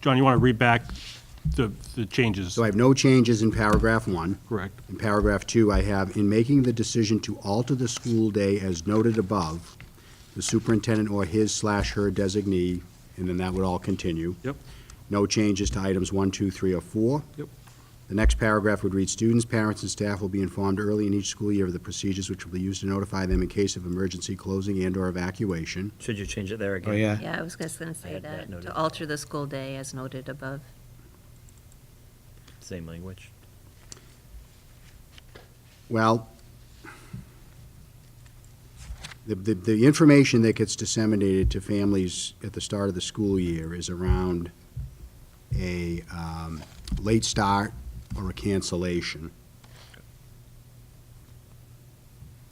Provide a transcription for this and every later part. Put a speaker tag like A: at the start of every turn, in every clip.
A: John, you want to read back the, the changes?
B: So I have no changes in paragraph one.
A: Correct.
B: In paragraph two, I have, in making the decision to alter the school day as noted above, the superintendent or his slash her designee, and then that would all continue.
A: Yep.
B: No changes to items one, two, three, or four.
A: Yep.
B: The next paragraph would read, students, parents, and staff will be informed early in each school year of the procedures which will be used to notify them in case of emergency closing and/or evacuation.
C: Should you change it there again?
D: Oh, yeah.
E: Yeah, I was just going to say
C: had that
E: that,
C: noted.
E: to alter the school day as noted above.
C: Same language.
B: Well, the, the, the information that gets disseminated to families at the start of the school year is around a, um, late start or a cancellation.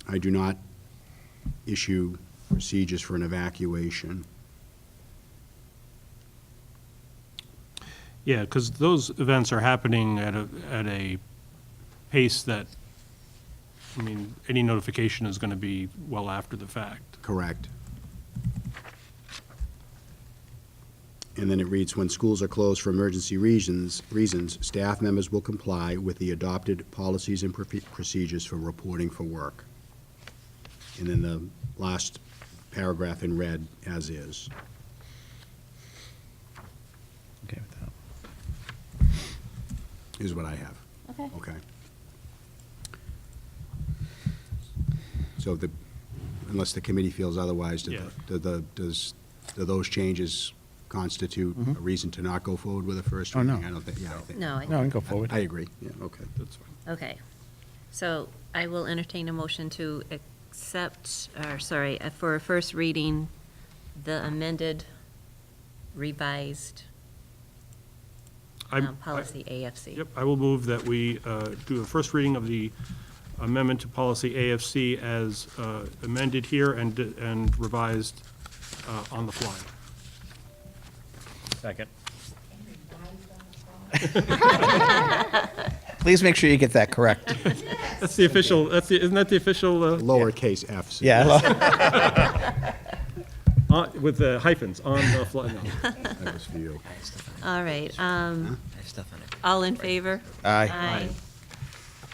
B: I do not issue procedures for an evacuation.
A: Yeah, because those events are happening at a, at a pace that, I mean, any notification is going to be well after the fact.
B: Correct. And then it reads, when schools are closed for emergency reasons, reasons, staff members will comply with the adopted policies and profe- procedures for reporting for work. And then the last paragraph in red, as is.
D: Okay with that.
B: is what I have.
E: Okay.
B: Okay. So the, unless the committee feels otherwise, do
A: Yeah.
B: the, do the, does, do those changes constitute a reason to not go forward with a first
D: Mm-hmm. Oh,
B: reading?
D: no.
B: I don't think, yeah, I think.
E: No, I-
D: No, I can go forward.
B: I agree, yeah, okay.
A: That's fine.
E: Okay. So I will entertain a motion to accept, or sorry, uh, for a first reading, the amended revised
A: I'm-
E: um, policy AFC.
A: Yep, I will move that we uh, do a first reading of the amendment to policy AFC as uh, amended here and, and revised uh, on the fly.
C: Second.
D: Please make sure you get that correct.
A: That's the official, that's the, isn't that the official, uh,
B: Lowercase f's.
D: Yeah.
A: on- with the hyphens, on the fly? no.
B: That was for you.
E: All right, um,
C: I have stuff on it.
E: all in favor?
D: Aye.
E: Aye.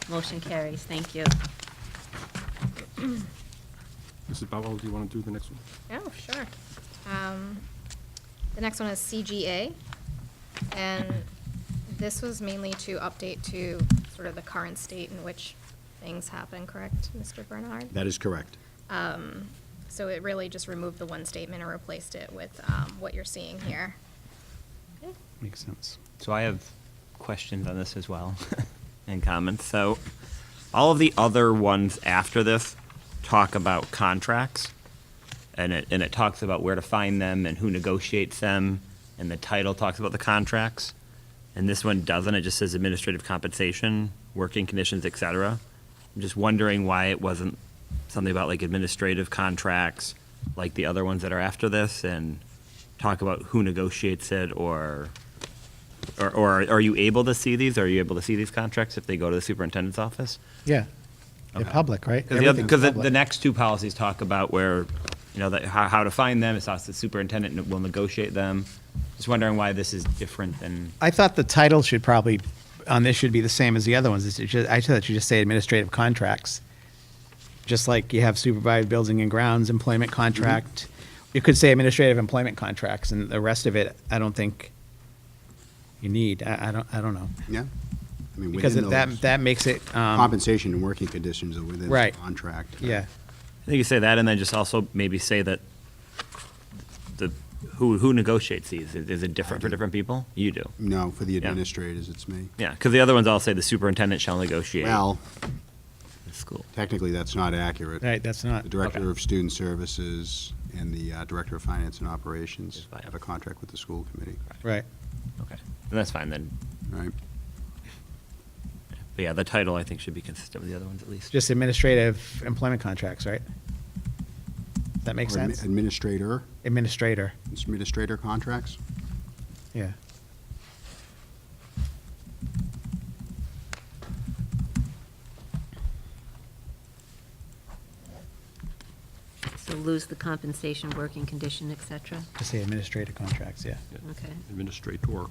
E: Motion carries, thank you.
A: Mrs. Bowell, do you want to do the next one?
F: Oh, sure. Um, The next one is CGA, and this was mainly to update to sort of the current state in which things happen, correct, Mr. Bernhard?
B: That is correct.
F: So it really just removed the one statement and replaced it with um, what you're seeing here.
D: Makes sense.
G: So I have questions on this as well and comments. So all of the other ones after this talk about contracts and it, and it talks about where to find them and who negotiates them and the title talks about the contracts. And this one doesn't. It just says administrative compensation, working conditions, et cetera. I'm just wondering why it wasn't something about like administrative contracts like the other ones that are after this and talk about who negotiates it or or, or are you able to see these? Are you able to see these contracts if they go to the superintendent's office?
D: Yeah. They're public, right?
G: Because the,
D: Everything's
G: the
D: public.
G: next two policies talk about where, you know, that, how, how to find them, it's us, the superintendent and will negotiate them. Just wondering why this is different than,
D: I thought the title should probably, on this should be the same as the other ones. It's just- I thought you just say administrative contracts. Just like you have supervised building and grounds, employment contract. You could say administrative employment contracts and the rest of it, I don't think you need. I, I don't, I don't know.
B: Yeah? I mean,
D: Because
B: within
D: it-
B: those-
D: that, that makes it, um,
B: Compensation and working conditions are within the
D: Right.
B: contract.
D: yeah.
G: I think you say that and then just also maybe say that the, who, who negotiates these? Is is it different for different people? You do.
B: No, for the
G: Yeah.
B: administrators, it's me.
G: Yeah, because the other ones all say the superintendent shall negotiate.
B: Well,
G: with School.
B: technically, that's not accurate.
D: Right, that's not.
B: The Director
G: Okay.
B: of Student Services and the uh, Director of Finance and Operations
G: Yes, I
B: have a contract with the school committee,
D: Right.
G: Okay. And that's fine then.
B: right?
G: But yeah, the title I think should be consistent with the other ones at least.
D: Just administrative employment contracts, right? That makes
B: Or admi-
D: sense?
B: Administrator,
D: Administrator,
B: administrator contracts?
D: yeah.
E: So lose the compensation, working condition, et cetera?
D: to say administrative contracts, yeah.
E: Okay.
A: Administrator.